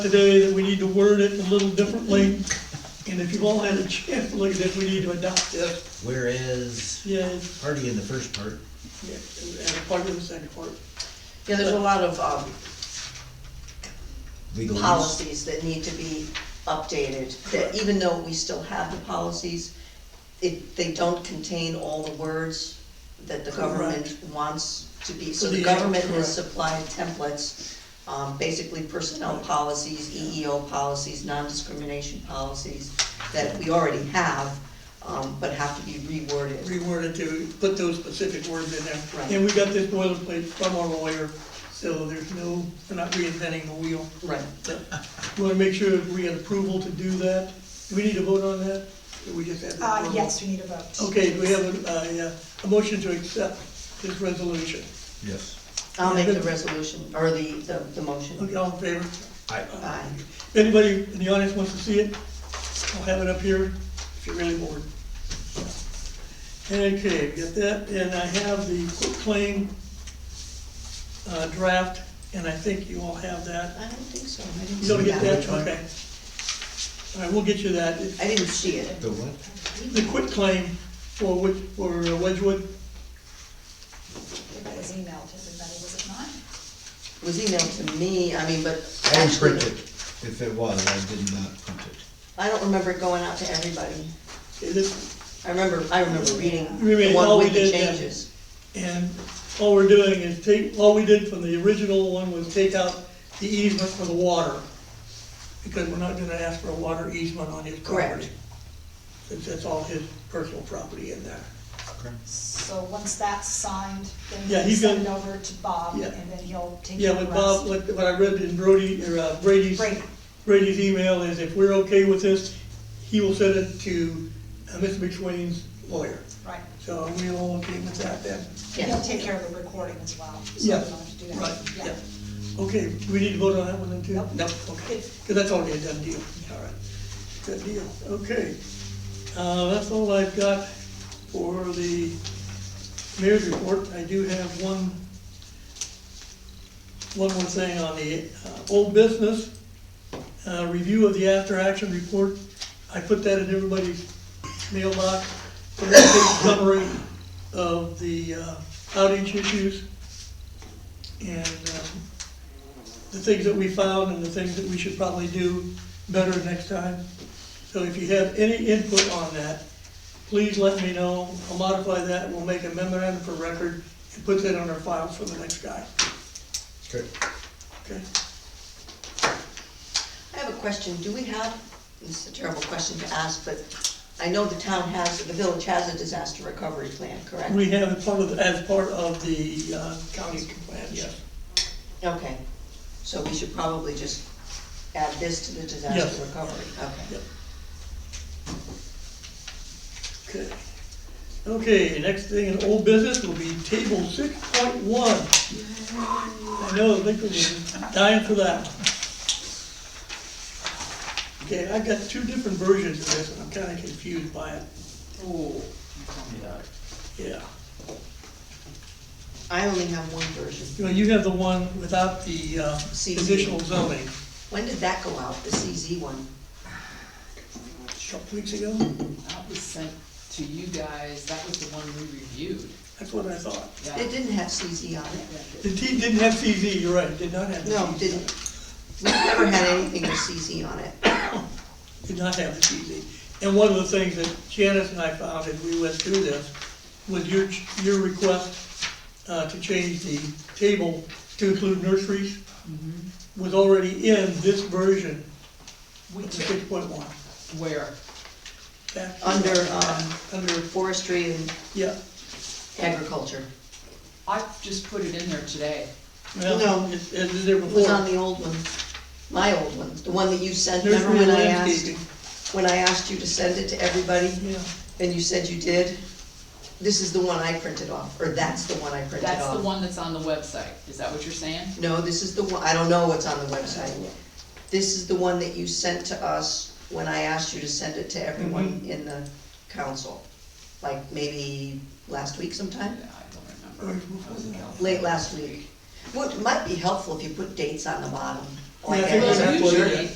today that we need to word it a little differently, and if you've all had a chance to look at it, we need to adopt it. Whereas, Yeah, and already in the first part, and a part of the second part. Yeah, there's a lot of um, legal use. policies that need to be updated, that even though we still have the policies, it, they don't contain all the words that the government wants to be, so the Yeah, government has correct. supplied templates, um, basically personnel policies, EEO policies, non-discrimination policies, that we already have, um, but have to be reworded. Reworded to put those specific words in Right. there. And we got this boilerplate from our lawyer, so there's no, we're not reinventing the wheel. Right. So, We wanna make sure we had approval to do that. Do we need to vote on that? Or we just have? the Uh, approval? yes, we need a vote. Okay, do we have a, a, uh, a motion to accept this resolution? Yes. I'll make the resolution, or the, the, the motion. Okay, all in favor? I, Aye. If anybody in the audience wants to see it, I'll have it up here if you're really bored. Okay, got that, and I have the quick claim uh, draft, and I think you all have I that. don't think so. I didn't You don't see get that, okay. All right, we'll get you that. I didn't see it. the what? The quick claim for Wed- for Wedgewood, It was emailed to everybody, was it not? was emailed to me, I mean, but I didn't actually, print it. If it was, I did not print it. I don't remember it going out to everybody. it is- I remember, I remember reading Remember, the all one we with the did, yeah. changes. and all we're doing is take, all we did from the original one was take out the easement for the water, because we're not gonna ask for a water easement on his property. Correct. since that's all his personal property in there. So once that's signed, Yeah, then you he's send it gonna- over to Bob, Yeah. and then he'll take care Yeah, of the what rest. Bob, what, what I read in Brody, or uh, Brady's, Brady. Brady's email is if we're okay with this, he will send it to uh, Mr. McSwain's lawyer. Right, So are we all okay with that then? he'll Yeah. take care of the recording as well, so you Yeah, don't have to do that. right, yeah. Okay, do we need to vote on that one then too? Nope. No, okay, because that's already a done deal. All right, good deal, okay. Uh, that's all I've got for the mayor's report. I do have one, one more thing on the uh, old business, uh, review of the after-action report. I put that in everybody's mailbox, a little summary of the uh, outage issues and um, the things that we found and the things that we should probably do better next time. So if you have any input on that, please let me know. I'll modify that, we'll make a memorandum for record and put that on our file for the next guy, Okay. okay? I have a question, do we have, this is a terrible question to ask, but I know the town has, the village has a disaster recovery plan, correct? We have it part of, as part of the uh, county plan, yes. Okay, so we should probably just add this to the Yes. disaster recovery, okay. Yep. Okay. Okay, next thing in old business will be table six point one. I know, Lincoln was dying for that. Okay, I've got two different versions of this, and I'm kinda confused by it. Oh. Yeah, I only have one version. you know, you have the one without the uh, CZ. conditional zoning, When did that go out, the CZ one? a couple weeks ago, That was sent to you guys, that was the one we reviewed. that's what I thought. Yeah. It didn't have CZ on it. The T didn't have CZ, you're right, it did not have the No, CZ. didn't. We've never had anything with CZ on it. did not have the TV. And one of the things that Janice and I found as we went through this was your, your request uh, to change the table to include nurseries Mm-hmm. was already in this version We of took six point one. where? Under, um, Under, Forestry and yeah. agriculture. I just put it in there today. Well, No. it's, it's there It was on before. the old one, my old one, the one that you sent, remember Nursery when and I asked, landscaping. when I asked you to send it to everybody? Yeah, And you said you did? This is the one I printed off, or that's the one I printed off. That's the one that's on the website, is that what you're saying? No, this is the one, I don't know what's on the website. This is the one that you sent to us when I asked you to send it to everyone in the council. Like maybe last week Yeah, sometime, I don't Or remember. before I was in California. late last week. What might be helpful if you put dates on the bottom. I like think I that's Well, what it usually, is.